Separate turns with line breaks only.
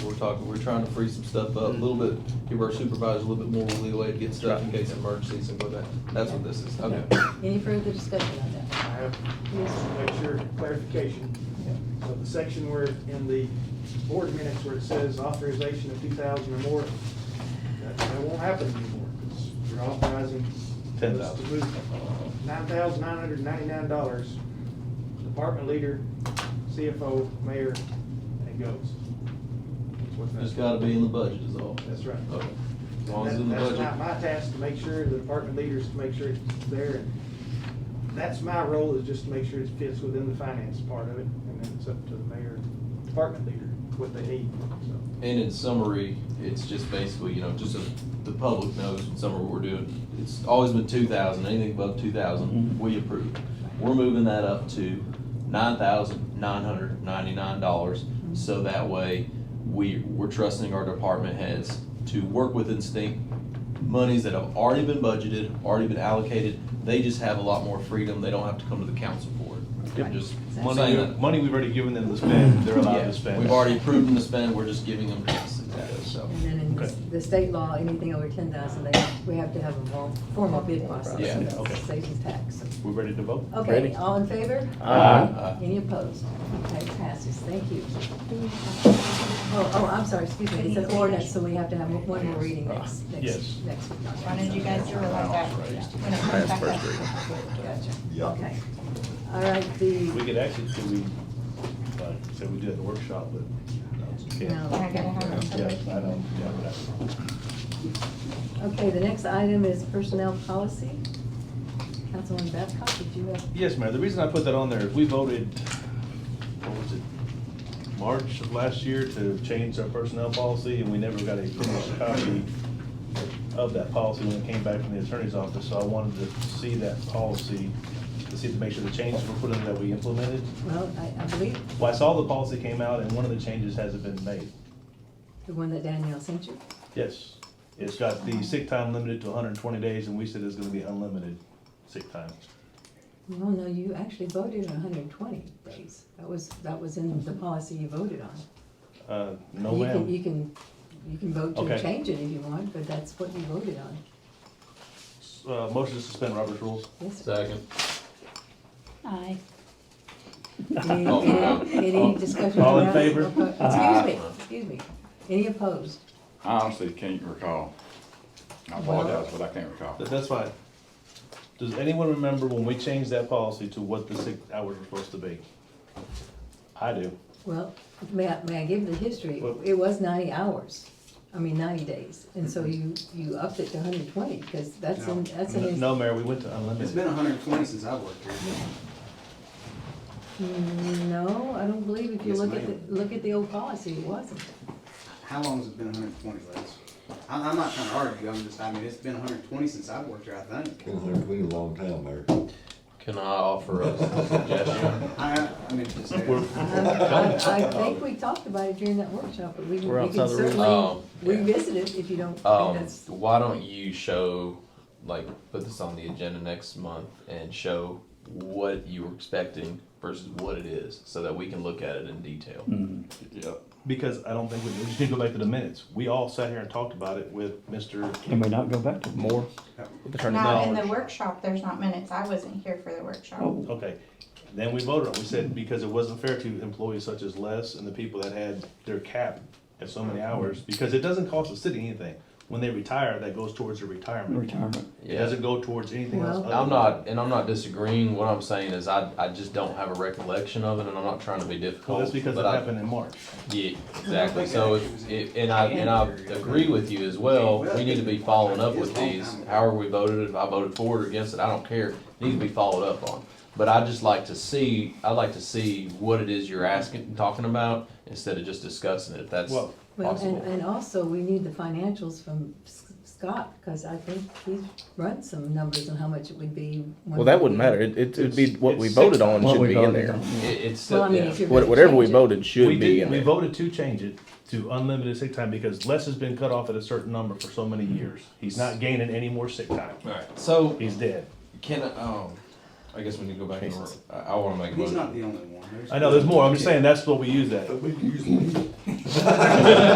We're talking, we're trying to free some stuff up, a little bit, give our supervisors a little bit more leeway to get stuff in case of emergencies and go that. That's what this is, okay.
Any further discussion on
I
that?
have,
Yes.
to make sure, clarification. So the section where, in the board minutes where it says authorization of two thousand or more, that, that won't happen anymore, because you're authorizing
Ten
us to
thousand.
move nine thousand nine hundred ninety-nine dollars, department leader, CFO, mayor, and it goes. That's what that-
Just gotta be in the budget is all.
That's right.
Okay. As long as it's in the
That-
budget.
That's my, my task, to make sure, the department leaders, to make sure it's there. and That's my role, is just to make sure it fits within the finance part of it, and then it's up to the mayor, and department leader, what they need, so.
And in summary, it's just basically, you know, just so the public knows in summary what we're doing. It's always been two thousand, anything above two thousand, we approve. We're moving that up to nine thousand nine hundred ninety-nine dollars. So that way, we, we're trusting our department heads to work with instinct. Monies that have already been budgeted, already been allocated, they just have a lot more freedom. They don't have to come to the council for it.
Yep.
I'm just
Money
saying
Money,
that.
money we've already given them to spend, they're allowed
Yeah,
to spend.
We've already approved them to spend, we're just giving them this, so.
And then in
Okay.
the state law, anything over ten thousand, they, we have to have a more formal bid process.
Yeah,
That's
okay.
Station tax.
We're ready to vote?
Okay, Um, all in favor?
Aye.
Any opposed? Okay, passes, thank you. Oh, oh, I'm sorry, excuse me, it's an ordinance, so we have to have one more reading next,
Uh, yes.
next, next week.
Wanted you guys to realize that when it comes back up.
Gotcha. Okay. All right, the.
We could actually, could we, like, say we do it in the workshop, but. no, we can't.
No.
I gotta have it, so
Yeah,
we
I don't,
can-
yeah, but
Okay, the next item is personnel policy. Councilwoman Babcock, did you have?
I- Yes, Mayor, the reason I put that on there is we voted, what was it, March of last year to change our personnel policy, and we never got a finished copy of that policy when it came back from the attorney's office, so I wanted to see that policy, to see, to make sure the changes were put in that we implemented.
Well, I, I believe
Well, I saw the policy came out and one of the changes hasn't been made.
the one that Danielle sent you.
Yes. It's got the sick time limited to hundred and twenty days and we said it's gonna be unlimited sick time.
No, no, you actually voted on hundred and twenty days. That was, that was in the policy you voted on.
Uh, no
You can- e-
ma'am.
You can, you can vote to
Okay.
change it if you want, but that's what you voted on.
S- Uh, motion to suspend Robert's rules.
Yes, sir.
Second.
Aye.
Any,
Oh, no.
any any discussion?
All in
around-
favor?
Excuse me, excuse me. Any opposed?
I honestly can't recall. I apologize, but I can't recall.
That- That's fine. Does anyone remember when we changed that policy to what the sick hours were supposed to be? I do.
Well, may I, may I give the history?
Well-
It was ninety hours, I mean ninety days, and so you, you upped it to hundred and twenty, because that's in, that's in
N-
his.
No, Mayor, we went to
It's been
unlimited.
hundred and twenty since I've worked here.
Mm, No, I don't believe if you
Yes,
look at,
ma'am.
the look at the old policy, it wasn't.
How long has it been hundred and twenty, Les? I'm, I'm not trying to argue, I'm just, I mean, it's been hundred and twenty since I've worked here, I think.
Been there a long time there.
Can I offer us a suggestion?
I, I mean, just,
We're-
I, I- I think we talked about it during that workshop, but we,
We're
we
outside
can
the room.
certainly
Um, yeah.
revisit it if you don't think
Um,
that's.
why don't you show, like, put this on the agenda next month and show what you were expecting versus what it is, so that we can look at it in detail.
Yep.
Because I don't think, we we just need to go back to the minutes. We all sat here and talked about it with Mr.
Can we not go back to more?
Attorney
Not in
Knowles.
the workshop, there's not minutes, I wasn't here for the workshop.
Oh,
Okay, then we voted on, it. we said because it wasn't fair to employees such as Les and the people that had their cap at so many hours, because it doesn't cost the city anything. When they retire, that goes towards their retirement.
retirement.
It doesn't go towards anything else.
Well-
other
I'm
than-
not, and I'm not disagreeing, what I'm saying is I, I just don't have a recollection of it, and I'm not trying to be
Well,
difficult.
that's because it
but I-
happened in March.
Yeah, exactly, so if, if- and I, and I agree with you as well, we need to be following up with these, however we voted, if I voted for it or against it, I don't care, needs to be followed up on. But I'd just like to see, I'd like to see what it is you're asking, and talking about, instead of just discussing it, if that's
Well-
Well, and,
possible.
and also, we need the financials from S- Scott, because I think he's run some numbers on how much it would be.
Well, that wouldn't matter. It, it, it'd be what we
It's- it's
voted on
What
should
we
be in
voted
there.
on.
It, it's,
Well, I mean,
yeah,
if you're
What-
gonna
Whatever we
change it-
voted
We
should be
did,
in
we
there.
voted to change it to unlimited sick time because Les has been cut off at a certain number for so many years. He's not gaining any more sick time.
alright, so,
He's dead.
can, I- um, I guess we need to go back, and re- I, I wanna make a
he's
motion.
not the only one.
I know, there's more. I'm just saying, that's what we use that.
But we usually,
me.